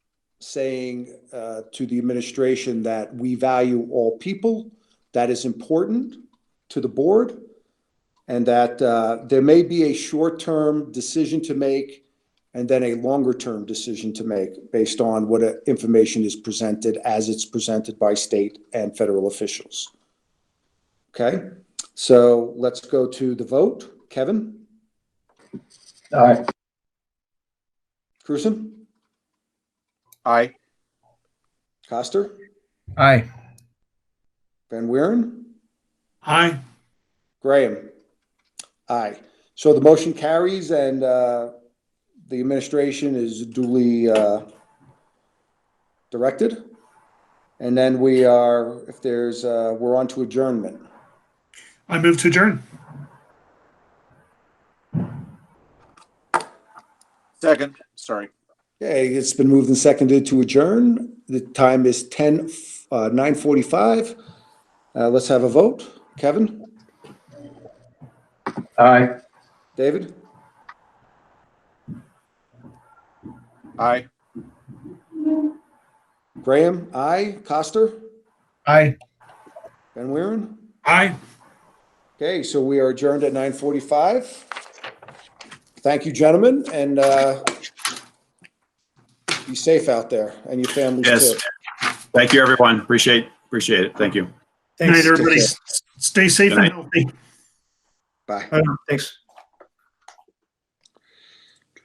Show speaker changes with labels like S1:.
S1: saying uh, to the administration that we value all people, that is important to the board, and that uh, there may be a short-term decision to make and then a longer-term decision to make based on what uh, information is presented as it's presented by state and federal officials. Okay, so let's go to the vote. Kevin?
S2: Aye.
S1: Cruzen?
S3: Aye.
S1: Coster?
S2: Aye.
S1: Van Wieren?
S4: Aye.
S1: Graham? Aye. So the motion carries and uh, the administration is duly uh, directed. And then we are, if there's, uh, we're on to adjournment.
S4: I move to adjourn.
S3: Second, sorry.
S1: Okay, it's been moved and seconded to adjourn. The time is 10, uh, 9:45. Uh, Let's have a vote. Kevin?
S2: Aye.
S1: David?
S3: Aye.
S1: Graham? Aye. Coster?
S2: Aye.
S1: Van Wieren?
S4: Aye.
S1: Okay, so we are adjourned at nine forty-five. Thank you, gentlemen, and uh, be safe out there and your families
S5: Yes.
S1: too.
S5: Thank you, everyone. Appreciate, appreciate it. Thank you.
S4: Good night,
S2: Thanks.
S4: everybody. S- Stay safe
S5: Good
S4: and
S5: night.
S4: healthy.
S1: Bye.
S2: Thanks.